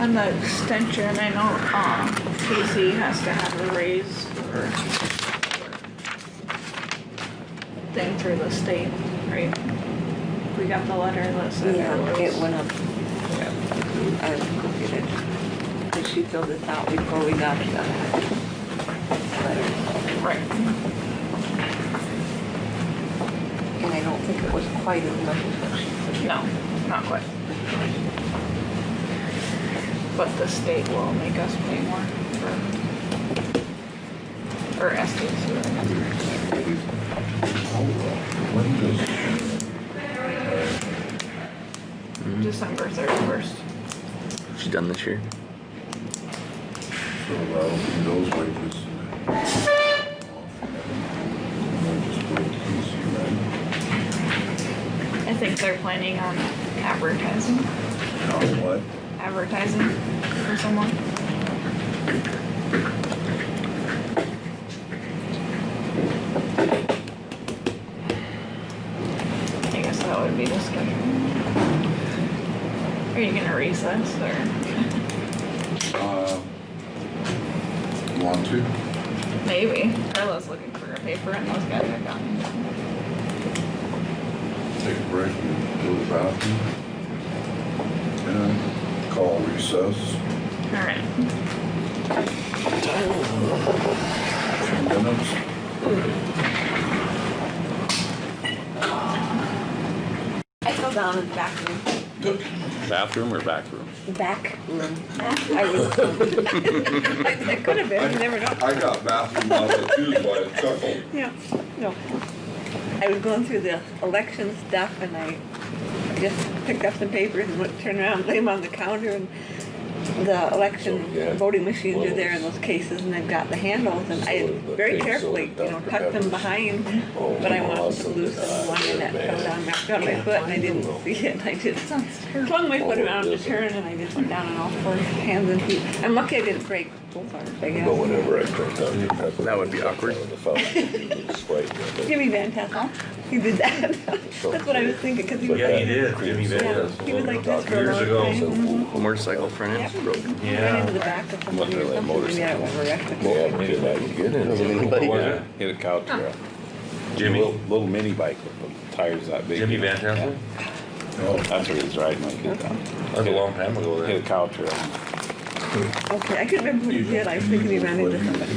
On the extension, I know, um, Casey has to have a raise or thing through the state, right? We got the letter that said there Yeah, was. it went up. I copied it. Did she fill this out before we got to that? letter? Right, And I don't think it was quite as much as what she said. no, not quite. But the state will make us pay more for, or SDSU. December thirty-first. She done this year. So that'll be those wages. I think they're planning on advertising, Now what? advertising for someone. I guess that would be the schedule. Are you gonna recess or Uh, you Want to? maybe Carla's looking for a paper and those guys are gone. Take a break and go to the bathroom? And call recess. All right. Few minutes. I fell down in the back room. Bathroom or back room? The back room. I was. I could have been, you never know. I got bathroom altitude by a chuckle. Yeah, no. I was going through the election stuff and I just picked up some papers and went, turned around, laid them on the counter and the election So, yeah. voting machines are there in those cases and I've got the handles and I So, the very things, so carefully, the you know, Dr. tucked them Peppers. behind, Oh, but I wanted to awesome. lose the one Ah, that man. fell down, knocked on my foot and I didn't Can't see it. and I just Sounds flung my foot Oh, around to doesn't. turn and I just went down on all fours, hands and feet. I'm lucky I didn't break both arms, I But guess. whenever I cranked out your pepper. That would be awkward. The fountain, it was right there. Jimmy Van Tassel, he did that. That's what I was thinking, because he was. Yeah, he did, Jimmy Yeah, Van. he was like this for a Years long ago. time. Mhm. Motorcycle front end's broken. Ran into Yeah. the back of somebody Wonder or that something, maybe I was arrested. They had a kid I could get in. Who was Yeah, it? Hit a cow trail. Little, Jimmy, little mini bike with the tires that big. Jimmy Van Tassel? No. That's what he was riding my kid down. That was a long time ago Hit then. a cow trail. Okay, I couldn't remember who he did, I was thinking he ran into somebody.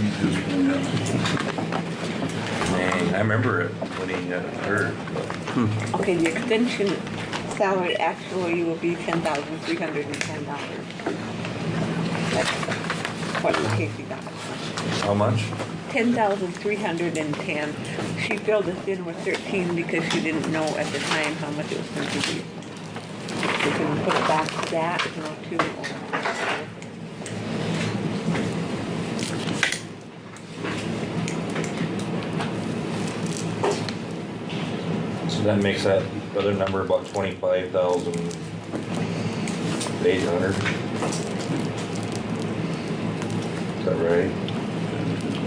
Dang, I remember it when he got hurt. Okay, the extension salary actually will be ten thousand three hundred and ten dollars. That's what Casey got. How much? Ten thousand three hundred and ten. She filled us in with thirteen because she didn't know at the time how much it was going to be. We can put it back to that, you know, too. or- So that makes that other number about twenty-five thousand eight hundred. Is that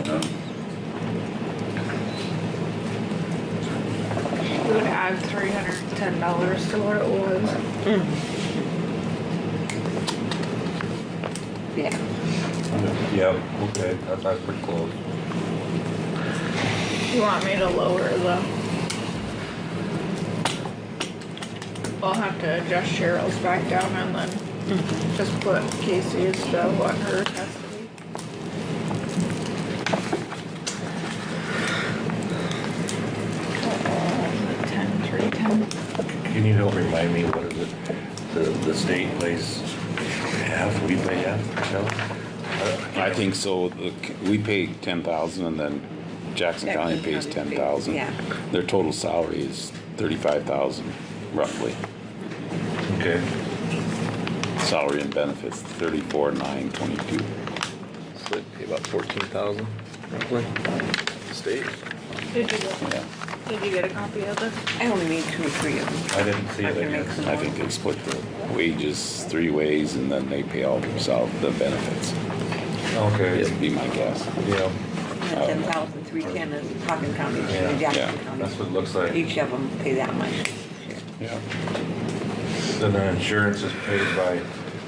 right? We would add three hundred and ten dollars to what it was. Yeah. Yeah, okay, that's, that's pretty close. You want me to lower the? I'll have to adjust Cheryl's back down and then just put Casey's to what her has to be. Uh, Ten, three, ten. Can you help remind me, what is it, the, the state pays half, we pay half, Michelle? I think so. The c- We pay ten thousand and then Jackson County Jackson pays ten County pays, thousand. yeah. Their total salary is thirty-five thousand roughly. Okay. Salary and benefits, thirty-four, nine, twenty-two. So it'd be about fourteen thousand roughly. State. Did you get, Yeah, did you get a copy of this? I only need two or three of them. I didn't see I it, I can make guess. some I more. think they split the wages three ways and then they pay all themselves the benefits. Okay, It'd be my guess. yeah, Ten thousand, three ten is Hockin County, and Oh. Yeah. Jackson Yeah. County. that's what it looks like. Each of them pay that much. Yeah. Then the insurance is paid by